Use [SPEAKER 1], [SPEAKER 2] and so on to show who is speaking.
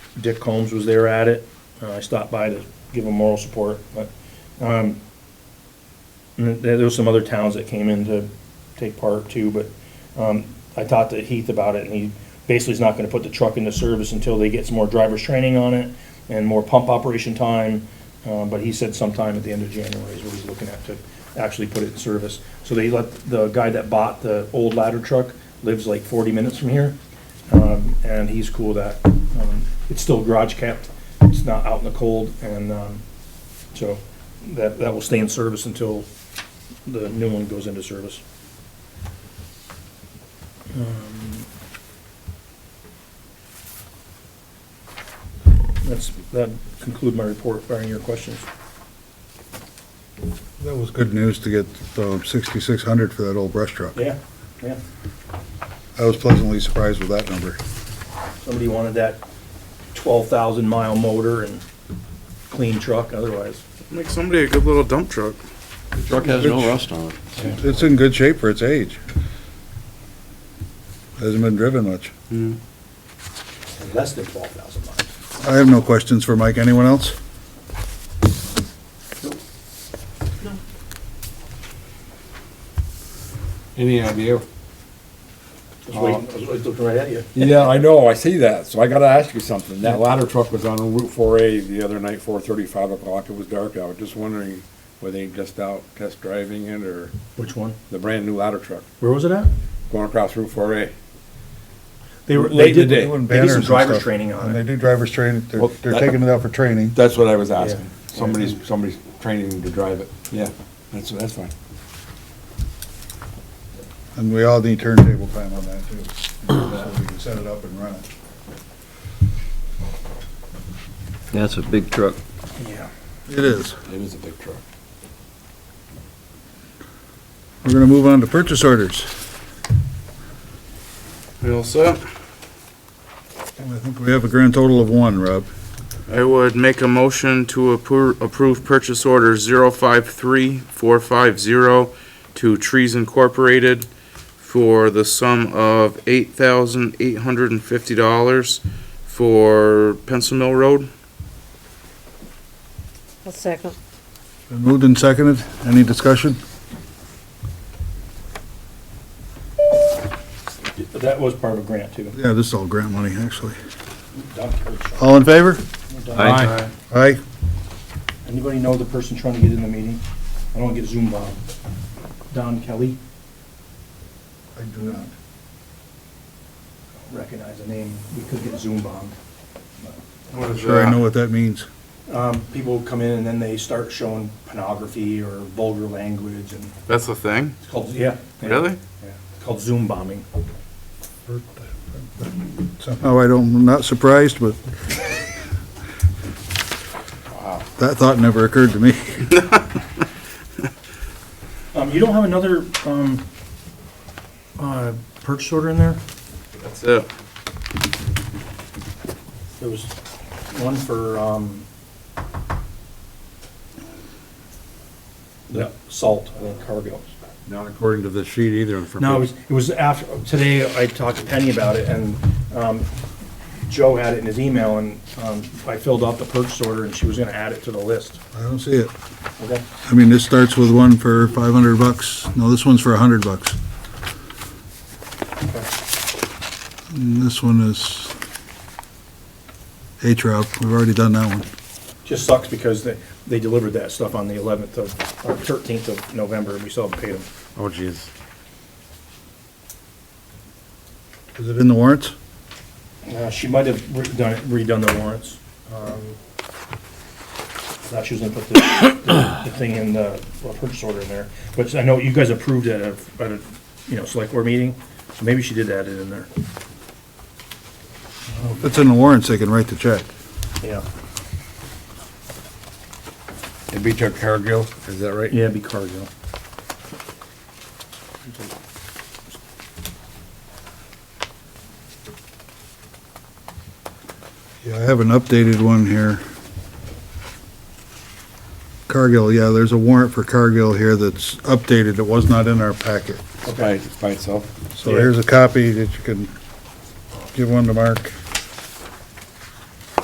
[SPEAKER 1] Dick Combs was there at it. Uh, I stopped by to give him moral support, but, um, and there there was some other towns that came in to take part too, but, um, I talked to Heath about it and he basically is not gonna put the truck into service until they get some more driver's training on it and more pump operation time. Uh, but he said sometime at the end of January is what he's looking at to actually put it in service. So they let, the guy that bought the old ladder truck lives like forty minutes from here. Um, and he's cool with that, um, it's still garage kept, it's not out in the cold, and, um, so that, that will stay in service until the new one goes into service. Um, That's, that conclude my report, barring your questions.
[SPEAKER 2] That was good news to get um, sixty-six hundred for that old brush truck.
[SPEAKER 1] Yeah, yeah,
[SPEAKER 2] I was pleasantly surprised with that number.
[SPEAKER 1] somebody wanted that twelve thousand mile motor and clean truck, otherwise,
[SPEAKER 3] Make somebody a good little dump truck.
[SPEAKER 4] Truck has no rust on it.
[SPEAKER 2] It's in good shape for its age. Hasn't been driven much.
[SPEAKER 1] less than twelve thousand miles.
[SPEAKER 2] I have no questions for Mike. Anyone else?
[SPEAKER 5] Any idea?
[SPEAKER 1] I was waiting, I was waiting- looking right at you.
[SPEAKER 5] Yeah, I know, I see that, so I gotta ask you something. That ladder truck was on Route four A the other night, four thirty, five o'clock, it was dark out. Just wondering, were they just out test driving it, or
[SPEAKER 1] Which one?
[SPEAKER 5] the brand-new ladder truck
[SPEAKER 1] Where was it at?
[SPEAKER 5] going across Route four A?
[SPEAKER 1] They were,
[SPEAKER 5] Late
[SPEAKER 1] they did,
[SPEAKER 5] today.
[SPEAKER 1] they did some driver's training
[SPEAKER 2] And
[SPEAKER 1] on
[SPEAKER 2] they
[SPEAKER 1] it.
[SPEAKER 2] do driver's training, they're,
[SPEAKER 5] Well,
[SPEAKER 2] they're
[SPEAKER 5] that-
[SPEAKER 2] taking it out for training.
[SPEAKER 5] That's what I was
[SPEAKER 1] asking.
[SPEAKER 5] asking.
[SPEAKER 1] Yeah.
[SPEAKER 5] Somebody's, somebody's training them to drive it. Yeah, that's, that's fine.
[SPEAKER 2] And we all need turntable time on that too. So we can set it up and run it.
[SPEAKER 4] That's a big truck.
[SPEAKER 1] Yeah.
[SPEAKER 2] It is.
[SPEAKER 5] It is a big truck.
[SPEAKER 2] We're gonna move on to purchase orders.
[SPEAKER 3] You all set?
[SPEAKER 2] And I think we have a grand total of one, Rob.
[SPEAKER 3] I would make a motion to appro- approve purchase order 053450 to Trees Incorporated for the sum of $8,850 for Pencil Mill Road.
[SPEAKER 6] I'll second.
[SPEAKER 2] Been moved and seconded. Any discussion?
[SPEAKER 1] That was part of a grant too.
[SPEAKER 2] Yeah, this is all grant money, actually.
[SPEAKER 1] Doc, or Sean,
[SPEAKER 2] All in favor?
[SPEAKER 1] or Doc.
[SPEAKER 4] Aye.
[SPEAKER 2] Aye.
[SPEAKER 1] Anybody know the person trying to get in the meeting? I don't wanna get Zoom bombed. Don Kelly,
[SPEAKER 2] I do not.
[SPEAKER 1] recognize the name, we could get Zoom bombed.
[SPEAKER 3] What is
[SPEAKER 2] Sure, I know what that means.
[SPEAKER 1] Um, people come in and then they start showing pornography or vulgar language and
[SPEAKER 3] That's a thing?
[SPEAKER 1] it's called, yeah. yeah,
[SPEAKER 3] Really?
[SPEAKER 1] yeah. It's called Zoom bombing.
[SPEAKER 2] Somehow Oh, I don't, I'm not surprised, but that thought never occurred to me.
[SPEAKER 1] Um, you don't have another, um, uh, purchase order in there?
[SPEAKER 3] That's it.
[SPEAKER 1] There was one for, um, the salt, I think Cargill.
[SPEAKER 5] Not according to the sheet either. for
[SPEAKER 1] No, it
[SPEAKER 5] big-
[SPEAKER 1] was, it was after, today I talked to Penny about it and, um, Joe had it in his email and, um, I filled out the purchase order and she was gonna add it to the list.
[SPEAKER 2] I don't see it.
[SPEAKER 1] Okay.
[SPEAKER 2] I mean, this starts with one for five hundred bucks. No, this one's for a hundred bucks. And this one is H-Rob. We've already done that one.
[SPEAKER 1] Just sucks because they, they delivered that stuff on the eleventh of, or thirteenth of November and we still haven't paid them.
[SPEAKER 5] Oh, jeez.
[SPEAKER 2] Is it in the warrants?
[SPEAKER 1] Uh, she might have redone, redone the warrants. Um, Thought she was gonna put the, the- the thing in the well, purchase order in there, but I know you guys approved at a, at a, you know, select board meeting, so maybe she did add it in there.
[SPEAKER 2] If it's in the warrants, they can write the check.
[SPEAKER 1] Yeah.
[SPEAKER 5] It beat your Cargill, is that right?
[SPEAKER 1] Yeah, it'd be Cargill.
[SPEAKER 2] Yeah, I have an updated one here. Cargill, yeah, there's a warrant for Cargill here that's updated. It was not in our packet.
[SPEAKER 5] By, by itself.
[SPEAKER 2] So here's a copy that you can give one to Mark.